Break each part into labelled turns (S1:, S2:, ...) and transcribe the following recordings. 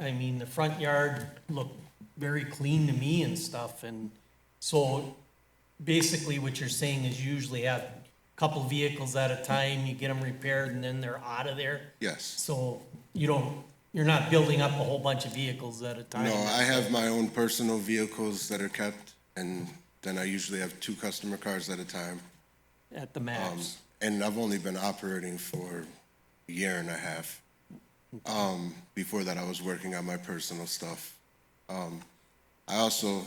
S1: I mean, the front yard looked very clean to me and stuff, and so basically what you're saying is you usually have a couple vehicles at a time, you get them repaired, and then they're out of there?
S2: Yes.
S1: So you don't, you're not building up a whole bunch of vehicles at a time?
S2: No, I have my own personal vehicles that are kept, and then I usually have two customer cars at a time. Um,
S1: At the max?
S2: And I've only been operating for a year and a half. Um, before that, I was working on my personal stuff. Um, I also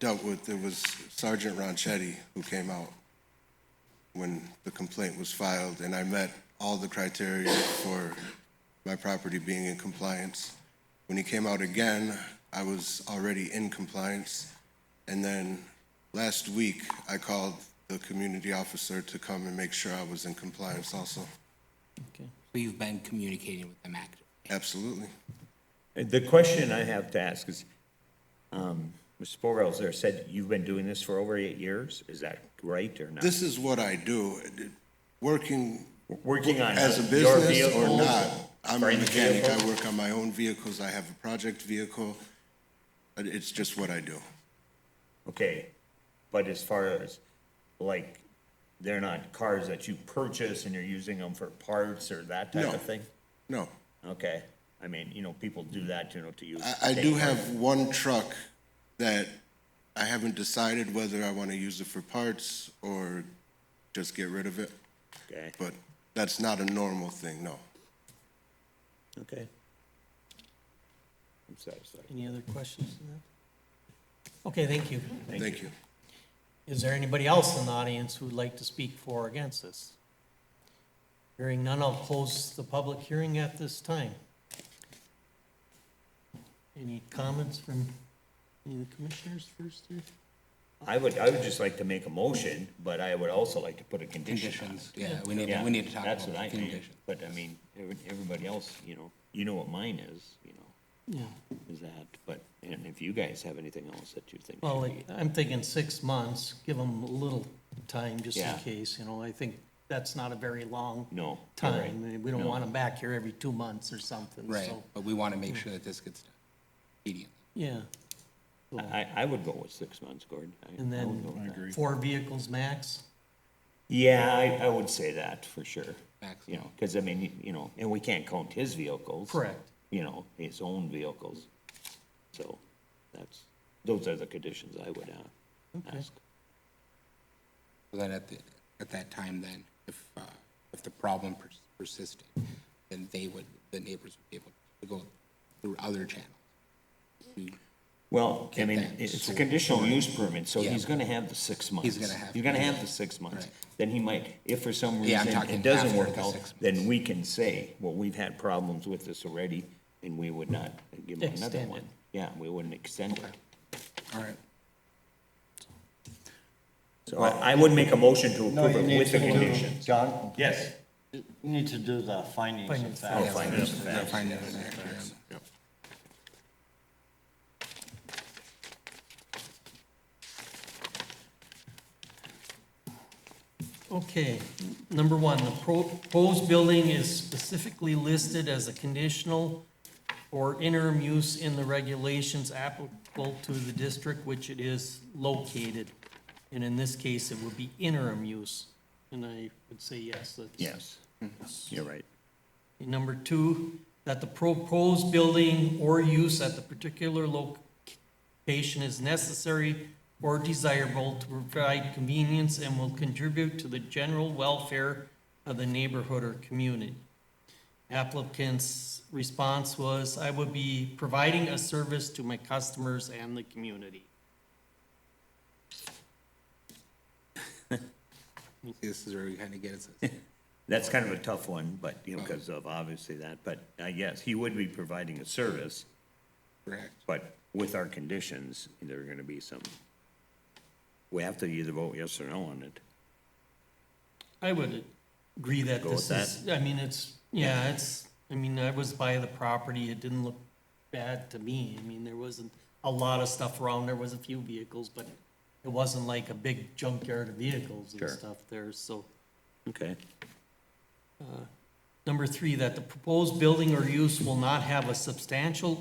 S2: dealt with, it was Sergeant Ronchetti who came out when the complaint was filed, and I met all the criteria for my property being in compliance. When he came out again, I was already in compliance. And then last week, I called the community officer to come and make sure I was in compliance also.
S1: Okay.
S3: So you've been communicating with them actively?
S2: Absolutely.
S4: The question I have to ask is, um, Mr. Borel's there said you've been doing this for over eight years? Is that right or not?
S2: This is what I do. Working
S4: Working on
S2: as a
S4: your
S2: business or
S4: vehicles?
S2: not, I'm
S4: Or
S2: a
S4: any
S2: mechanic. I
S4: vehicles?
S2: work on my own vehicles. I have a project vehicle. But It's just what I do.
S4: Okay, but as far as, like, they're not cars that you purchase and you're using them for parts or that type
S2: No.
S4: of thing?
S2: No.
S4: Okay, I mean, you know, people do that, you know, to use.
S2: I, I do have one truck that I haven't decided whether I want to use it for parts or just get rid of it.
S4: Okay,
S2: But that's not a normal thing, no. um,
S4: okay. I'm satisfied.
S1: Any other questions? on that? Okay, thank you.
S2: Thank you.
S1: Is there anybody else in the audience who'd like to speak for or against this? Hearing none, I'll close the public hearing at this time. Any comments from any of the commissioners first here?
S4: I would, I would just like to make a motion, but I would also like to put a condition on it.
S3: Conditions, yeah, we need, to-
S4: Yeah,
S3: we need to talk about
S4: that's what I
S3: the
S4: mean.
S3: condition.
S4: But I mean, every- everybody else, you know, you know what mine is, you know,
S1: Yeah,
S4: is that, but, and if you guys have anything else that you think.
S1: well,
S4: should
S1: like, I'm thinking six months, give them a little time just in
S4: Yeah.
S1: case, you know, I think that's not a very long
S4: be- No. you're right.
S1: time. and We don't
S4: No.
S1: want them back here every two months or something,
S3: Right,
S1: so,
S3: but we want to make sure that this gets done immediately.
S1: yeah.
S4: I, I would go with six months, Gordon. I-
S1: And
S4: I would
S1: then
S4: go with that.
S1: four vehicles max?
S4: Yeah, I, I would say that for sure. You
S3: Maximum.
S4: know, because I mean, you- you know, and we can't count his vehicles.
S1: Correct.
S4: You know, his own vehicles. So that's, those are the conditions I would uh, ask.
S3: So Then at the, at that time then, if, uh, if the problem pers- persisted, then they would, the neighbors would be able to go through other channels.
S4: Well, I
S3: Get
S4: mean,
S3: that
S4: it's a
S3: sold.
S4: conditional use permit, so
S3: Yeah.
S4: he's gonna have the six months.
S3: gonna have
S4: He's gonna
S3: to,
S4: have
S3: yeah.
S4: the six months.
S3: Right.
S4: Then he might, if for some
S3: Yeah, I'm
S4: reason it
S3: talking
S4: doesn't
S3: after
S4: work
S3: the
S4: out,
S3: six
S4: then we can say, well, we've had problems with this already, and we would not give him another
S1: Extend it.
S4: one. Yeah, we wouldn't extend it.
S3: All right.
S4: So I I would make a motion to
S5: No,
S4: approve
S5: you
S4: it
S5: need
S4: with the
S5: to do-
S4: conditions.
S5: John,
S4: Yes.
S5: you need to do the findings of
S1: Findings.
S5: fact.
S3: Yeah, find out exactly.
S1: Okay, number one, the pro- proposed building is specifically listed as a conditional or interim use in the regulations applicable to the district which it is located. And in this case, it would be interim use, and I would say yes, that's.
S4: Yes, you're right.
S1: Number two, that the proposed building or use at the particular location is necessary or desirable to provide convenience and will contribute to the general welfare of the neighborhood or community. Applicant's response was, I would be providing a service to my customers and the community.
S3: This is where we kind of get it.
S4: That's kind of a tough one, but, you know, because of obviously that, but uh, yes, he would be providing a service,
S3: correct.
S4: but with our conditions, there are gonna be some, we have to either vote yes or no on it.
S1: I would agree that
S4: Go with
S1: this is, I mean, it's, yeah, it's, I mean, I was by the property, it didn't look bad to me. I mean, there wasn't a lot of stuff around, there was a few vehicles, but it wasn't like a big junkyard of vehicles and
S4: Sure.
S1: stuff there, so.
S4: Okay.
S1: Number three, that the proposed building or use will not have a substantial